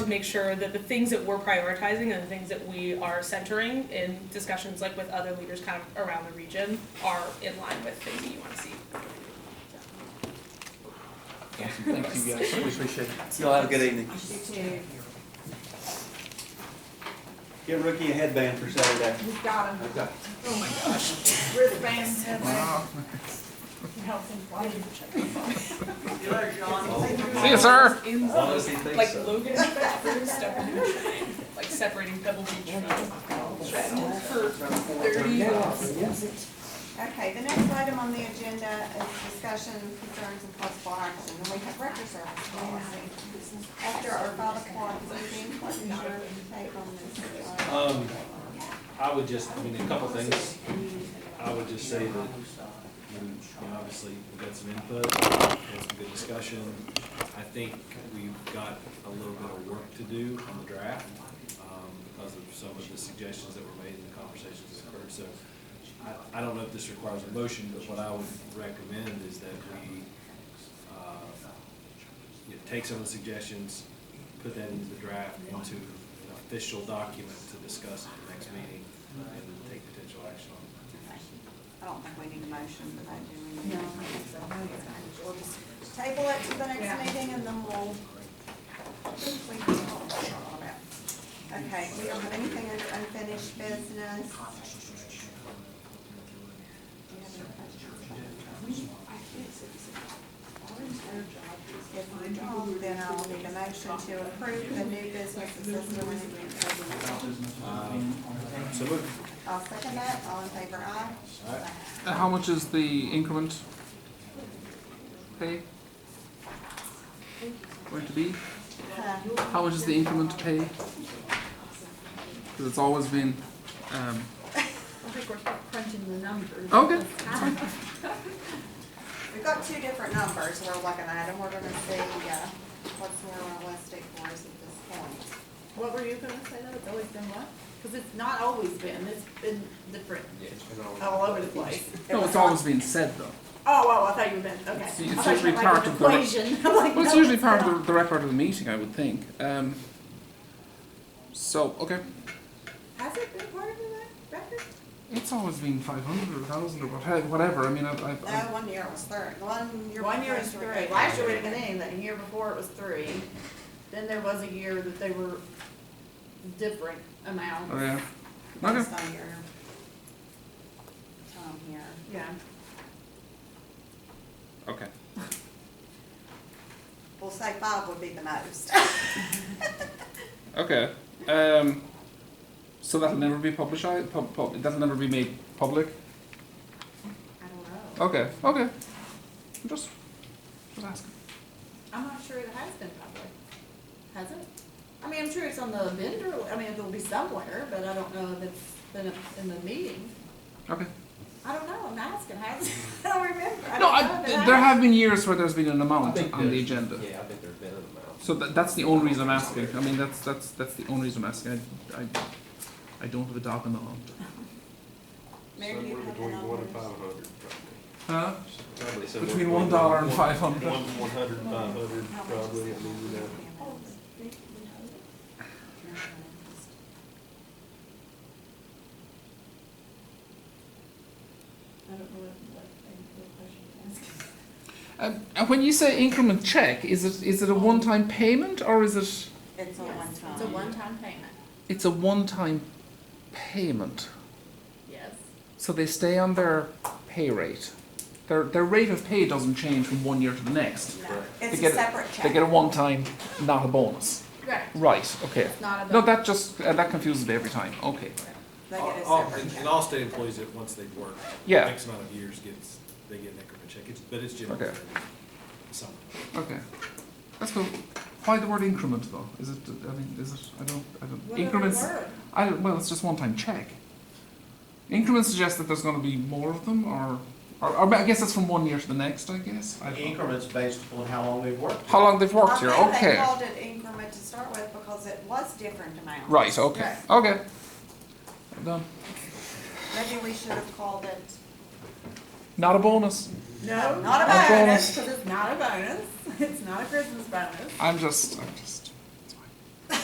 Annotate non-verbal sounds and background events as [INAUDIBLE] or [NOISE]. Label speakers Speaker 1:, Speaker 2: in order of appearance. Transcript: Speaker 1: make sure that the things that we're prioritizing and the things that we are centering in discussions like with other leaders kind of around the region are in line with things that you wanna see.
Speaker 2: Awesome, thank you guys, we appreciate it.
Speaker 3: Y'all have a good evening.
Speaker 4: too.
Speaker 3: Get Rookie a headband for Saturday.
Speaker 4: We've got him.
Speaker 3: Okay.
Speaker 1: Oh my gosh.
Speaker 4: We're the fans.
Speaker 2: Wow.
Speaker 4: Help them fly.
Speaker 3: Oh.
Speaker 2: See you, sir.
Speaker 1: In
Speaker 3: As long as he thinks
Speaker 1: like
Speaker 3: so.
Speaker 1: Logan Stephen, like separating Pebble Beach from Stratton for thirty minutes.
Speaker 4: Okay, the next item on the agenda is discussion concerns and possible action, and we have record service policy. After our five o'clock meeting, what is your take on this? Uh,
Speaker 5: Um, I would just, I mean, a couple things. I would just say that, we, you know, obviously, we got some input, had some good discussion. I think we've got a little bit of work to do on the draft, um, because of some of the suggestions that were made and the conversations that occurred. So I, I don't know if this requires a motion, but what I would recommend is that we, uh, you know, take some of the suggestions, put that into the draft, into an official document to discuss at the next meeting, and take potential action on it.
Speaker 4: I don't think we need a motion, but I do. need a- We'll just Table it to the next meeting and then we'll. we can talk about that. Okay, we don't have anything under unfinished business. Do you have any questions? If we don't, then I'll need a motion to approve the new business assessment.
Speaker 5: So move.
Speaker 4: I'll second that, all in favor, aye?
Speaker 5: Aye.
Speaker 2: And Uh, how much is the increment pay? Going to be?
Speaker 4: Huh.
Speaker 2: How much is the increment pay? Because it's always been, um,
Speaker 6: I think we're crunching the numbers.
Speaker 2: Okay.
Speaker 4: We've got two different numbers we're looking at, and we're gonna see, uh, what's more realistic for us at this point.
Speaker 6: [LAUGHS] What were you gonna say though? It's always been what? Cause it's not always been, it's been different, all over the place.
Speaker 2: no, it's always been said though.
Speaker 6: [LAUGHS] Oh, oh, I thought you meant, okay.
Speaker 2: It's- it's
Speaker 6: I thought you
Speaker 2: usually
Speaker 6: meant like
Speaker 2: part
Speaker 6: an
Speaker 2: of the- [LAUGHS]
Speaker 6: Equation. I'm like,
Speaker 2: Well, it's
Speaker 6: no,
Speaker 2: usually part
Speaker 6: not.
Speaker 2: of the, the record of the meeting, I would think. Um, so, okay.
Speaker 6: Has it been part of the record?
Speaker 2: It's always been 500 or 1,000 or whatever. whatever. I mean, I, I, I,
Speaker 4: No, one year it was third, one year.
Speaker 6: One year
Speaker 4: before
Speaker 6: is
Speaker 4: we were
Speaker 6: three.
Speaker 4: good.
Speaker 6: Last year we didn't get anything. The year before it was three. Then there was a year that they were different amounts.
Speaker 2: oh yeah. Okay.
Speaker 4: Based on your time here.
Speaker 6: Yeah.
Speaker 2: Okay.
Speaker 4: We'll say five would be the most.
Speaker 2: Okay. Um, so that'll never be published. Pub, pub, that'll never be made public.
Speaker 6: I don't know.
Speaker 2: Okay. Okay. I'm just, just asking.
Speaker 6: I'm not sure it has been public. Has it? I mean, I'm sure it's on the vendor, I mean, it'll be somewhere, but I don't know if it's been up in the meeting.
Speaker 2: Okay.
Speaker 6: I don't know. I'm asking. Has, it? [LAUGHS] I don't remember.
Speaker 2: No,
Speaker 6: I don't know
Speaker 2: I,
Speaker 6: if it
Speaker 2: th- there
Speaker 6: has.
Speaker 2: have been years where there's been an
Speaker 7: I
Speaker 2: amount
Speaker 7: think
Speaker 2: on the
Speaker 7: there's-
Speaker 2: agenda.
Speaker 7: Yeah, I think there's been an amount.
Speaker 2: So that, that's the only reason I'm asking. I mean, that's that's that's the only reason I'm asking. I, I, I don't have a dog in the hunt.
Speaker 4: Mary, do you have the numbers?
Speaker 5: hundred.
Speaker 2: Huh?
Speaker 5: Probably somewhere
Speaker 2: Between one dollar and five hundred.
Speaker 5: One, one hundred and five hundred,
Speaker 4: How much is
Speaker 5: probably, I
Speaker 4: the
Speaker 5: mean, you know.
Speaker 4: amount?
Speaker 6: I don't know what, what, what question to ask.
Speaker 2: Um, and when you say increment check, is it is it a one time payment or is it?
Speaker 4: It's a
Speaker 6: Yes,
Speaker 4: one time.
Speaker 6: It's a one-time payment.
Speaker 2: It's a one time payment.
Speaker 6: Yes.
Speaker 2: So they stay on their pay rate. Their, their rate of pay doesn't change from one year to the next.
Speaker 4: No,
Speaker 2: They
Speaker 4: It's a
Speaker 2: get it-
Speaker 4: separate
Speaker 2: They get a
Speaker 4: check.
Speaker 2: one time, not a bonus.
Speaker 6: Right.
Speaker 2: Right, okay.
Speaker 6: Not a
Speaker 2: No,
Speaker 6: bill.
Speaker 2: that just, uh, that confuses me every time. Okay.
Speaker 4: They get a
Speaker 5: All- all-
Speaker 4: separate
Speaker 5: Oh, and-
Speaker 4: check.
Speaker 5: And all state employees that, once they've worked.
Speaker 2: Yeah.
Speaker 5: X amount of years gets, they get an increment check, it's, but it's generally.
Speaker 2: Okay.
Speaker 5: Something.
Speaker 2: Okay. That's cool. Why the word increment though? Is it, I mean, is it, I don't, I don't,
Speaker 6: Whatever
Speaker 2: increments,
Speaker 6: word.
Speaker 2: I don't, well, it's just one time check. Increments suggest that there's gonna be more of them or, or, or I guess that's from one year to the next, I guess. I don't know.
Speaker 7: Increments based upon how long we've worked.
Speaker 2: How long they've worked here,
Speaker 4: I think they
Speaker 2: okay.
Speaker 4: called it increment to start with because it was different amounts.
Speaker 2: Right, okay, okay. I'm done.
Speaker 4: Maybe we should have called it,
Speaker 2: Not a bonus.
Speaker 6: No,
Speaker 4: Not
Speaker 6: not
Speaker 4: a
Speaker 6: a
Speaker 4: [LAUGHS]
Speaker 2: bonus.
Speaker 6: bonus, 'cause it's not a bonus. It's not a Christmas bonus.
Speaker 2: I'm just, I'm just.